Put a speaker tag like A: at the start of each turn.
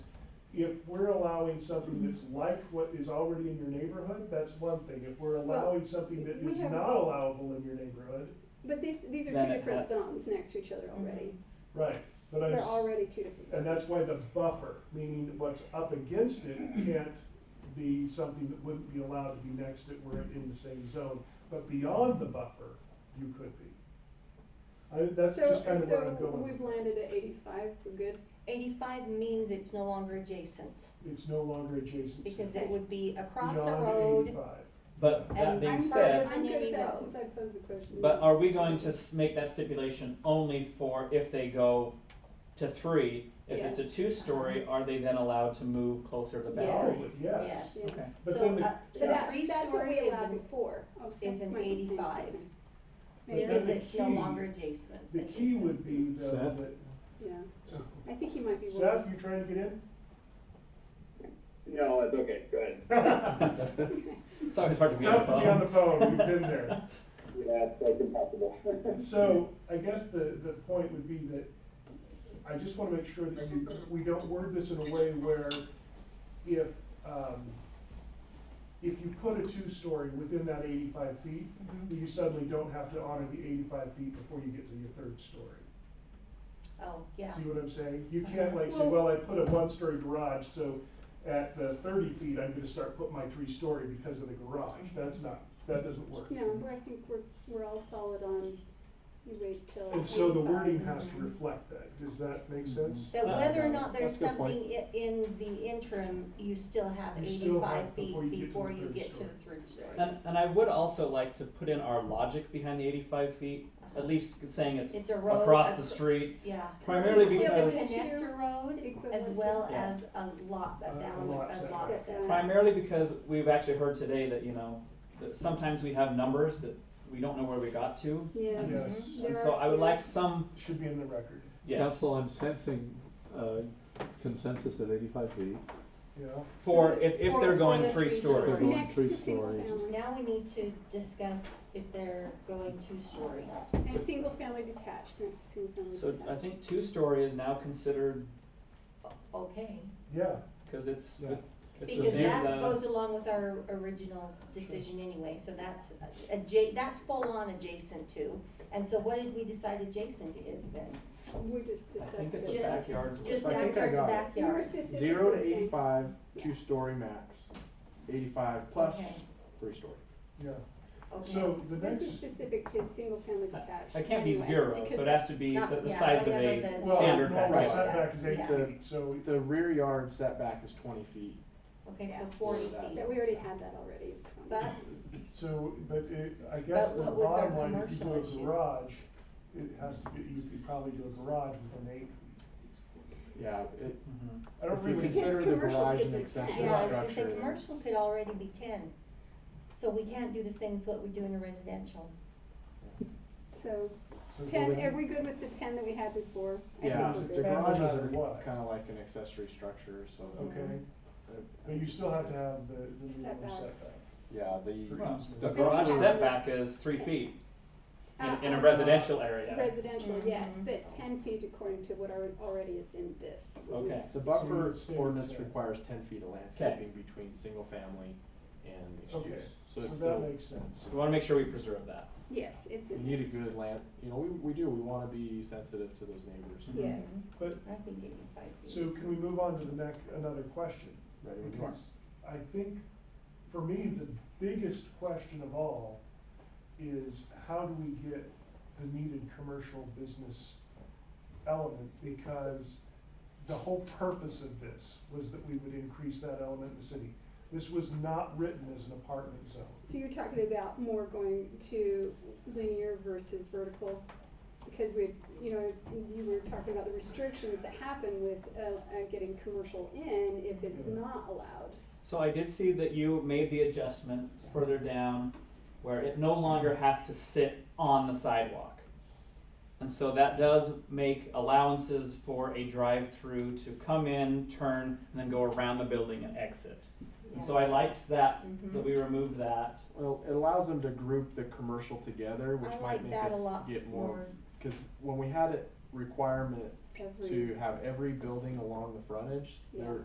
A: if we're allowing something that's like what is already in your neighborhood, that's one thing. If we're
B: Well,
A: allowing something that
B: we
A: is
B: have-
A: not allowable in your neighborhood,
B: But these, these are
C: Then
B: two
C: it
B: different
C: has- Mm-hmm.
B: zones next to each other already.
A: right, but I'm,
B: They're
A: s-
B: already two different.
A: and that's why the buffer, meaning what's up against it can't be something that wouldn't be allowed to be next to it were it in the same zone. But beyond the buffer, you could be. I, that's
B: So,
A: just kind of where I'm
B: so
A: going.
B: we've landed at eighty-five, we're good.
D: Eighty-five means it's no longer adjacent,
A: It's no longer adjacent to.
D: because it would be across a
A: beyond
D: road.
A: 85.
C: But that
D: And
C: being
B: I'm
C: said,
B: I'm good with
D: Any
B: that
D: road.
B: since I posed the question.
C: but are we going to s- make that stipulation only for if they go to three? If it's a two-story, are they then allowed to move closer to the boundary?
A: Probably, yes.
D: Yes.
C: Okay.
A: But
D: So
A: then the-
D: up
B: So
D: to
B: that,
D: three
B: that's what
D: story
B: we
D: is
B: allowed
D: an,
B: before. Oh, so
D: is
B: that
D: an
B: might be the same
D: 85.
B: statement. Maybe
D: because
A: the
B: it's-
D: it's no
A: key-
D: longer adjacent.
A: The key
D: adjacent.
A: would be though
E: Seth?
A: that,
B: Yeah, I think he might be
A: Seth,
B: wrong.
A: you trying to get in?
F: No, it's okay, go ahead.
C: It's always hard to be on the
A: Tough to be on the
C: phone.
A: phone, we've been there.
F: Yeah, it's like impossible.
A: So I guess the, the point would be that I just wanna make sure that you, we don't word this in a way where if, um, if you put a two-story within that eighty-five feet,
D: Mm-hmm.
A: you suddenly don't have to honor the eighty-five feet before you get to your third story.
D: Oh, yeah,
A: See what I'm saying? You can't like say, well, I put a one-story garage, so at the thirty feet, I'm gonna start putting my three-story because of the garage. That's not, that doesn't work.
B: No, we're- I think we're, we're all solid on, you wait till.
A: And so the
B: 85.
A: wording has to reflect that. Does that make sense?
D: that
C: Uh,
D: whether or not there's
E: that's a good point.
D: something i- in the interim, you still have
A: You still have
D: eighty-five
A: before
D: feet
A: you get to the
D: before you
A: third
D: get to
A: story.
D: the third story.
C: And, and I would also like to put in our logic behind the eighty-five feet, at least saying it's
D: Uh-huh. It's a road.
C: across
D: ac-
C: the street,
D: Yeah.
C: primarily
B: Yeah, but
C: because.
D: It's
B: it's-
D: a connector road as
B: Equivalent
D: well
C: to-
D: as a lot,
A: A-
D: a
C: Uh,
A: a
D: bound, a
A: lot
D: lot
B: setback.
D: setback.
C: Primarily because we've actually heard today that, you know, that sometimes we have numbers that we don't know where we got to.
B: Yes.
C: And-
A: Yes,
B: There
C: And so
B: are
C: I would
B: few-
C: like some,
A: should be in the record,
C: yes,
E: Council, I'm sensing uh, consensus at eighty-five feet.
A: yeah.
C: for, if, if
D: For-
C: they're
D: for
C: going
D: the
C: three
D: three
C: stories.
D: stories.
B: Next to
E: three
B: single
E: stories.
B: family.
D: Um, Now we need to discuss if they're going two-story.
B: And single family detached, next to single family
C: So
B: detached.
C: I think two-story is now considered,
D: Okay,
A: Yeah,
C: because it's,
A: Yeah.
C: with- it's
D: because
C: within
D: that goes
C: the,
D: along with our original decision anyway, so that's adja- that's full-on adjacent to. And so what did we decide adjacent is then?
B: We just
C: I
B: discussed
C: think it's the
B: it.
D: Just-
C: backyards. with-
D: Just
G: I think I
D: backyard to
G: got
B: We
G: it.
B: were
D: backyard.
B: specifically
G: Zero to
B: saying-
G: eighty-five, two-story max, eighty-five plus,
D: Okay.
G: three-story.
A: yeah.
D: Okay.
A: So the
B: This was
A: next,
B: specific to single family detached.
C: It can't be
B: anyway,
C: zero,
B: because
C: so it has to be
D: Not-
C: the, the
D: yeah,
C: size of
D: whatever
C: a
D: the-
A: well,
C: standard
A: normal
C: backyard.
A: setback is eight
D: Yeah.
A: feet, so
G: The rear yard setback is twenty feet.
D: Okay, so forty feet.
B: That we already had that already. it's fine.
D: But
A: So, but it, I guess
D: But
A: the
D: what was our
A: bottom line, if you do
D: commercial
A: a
D: issue?
A: garage, it has to be, you could probably do a garage with an eight.
G: Yeah, it,
C: Mhm.
A: I don't
G: If you
A: really,
G: can- consider the
B: Because commercial
G: garage
B: could
G: an
B: be
G: accessory
B: ten.
D: Yeah, I was gonna say,
G: Structure.
D: commercial could already be ten, so we can't do the same as what we do in a residential.
B: So
A: so
B: ten,
A: the-
B: are we good with the ten that we had before? I
G: yeah,
B: think we're
G: the
B: good.
A: Ten no
G: garages
A: matter
G: are
A: what.
G: kinda like an accessory structure, so.
A: okay,
G: uh,
A: but you still have to have the, the minimum
B: Setback.
A: setback.
G: Yeah, the,
C: Well, The
G: the
B: Maybe
C: garage
B: not.
C: setback is three feet
B: Uh,
C: in, in a
B: uh,
C: residential area.
D: Mm-hmm.
B: Residential, yes, but ten feet according to what alre- already is in this.
C: Okay.
G: the
A: So
G: buffer
A: you'd say
G: ordinance
A: ten.
G: requires ten feet of landscaping between single-family and mixed
A: Okay,
G: use.
A: so
G: it's
A: that
G: still-
A: makes sense.
C: We wanna make sure we preserve that.
B: Yes, it's
G: We
B: in
G: need a good land, you know, we, we do, we wanna be sensitive to those neighbors.
A: Mm-hmm.
B: there. Yes.
D: Mm-hmm.
A: But,
D: I think eighty-five feet.
A: so can we move on to the next, another question?
G: Ready when you are.
A: Because I think, for me, the biggest question of all is how do we get the needed commercial business element? Because the whole purpose of this was that we would increase that element in the city. This was not written as an apartment zone.
B: So you're talking about more going to linear versus vertical? Because we, you know, you were talking about the restrictions that happen with, uh, uh, getting commercial in if it's
A: Yeah.
B: not allowed.
C: So I did see that you made the adjustment further down where it no longer has to sit on the sidewalk. And so that does make allowances for a drive-through to come in, turn, and then go around the building and exit. And so I liked that, that we removed that.
G: Well, it allows them to group the commercial together, which
D: I
G: might
D: like
G: make
D: that a
G: us
D: lot
G: get
D: more.
G: more, cause when we had a requirement
B: Every-
G: to have every building along the frontage,
B: Yeah.
G: there,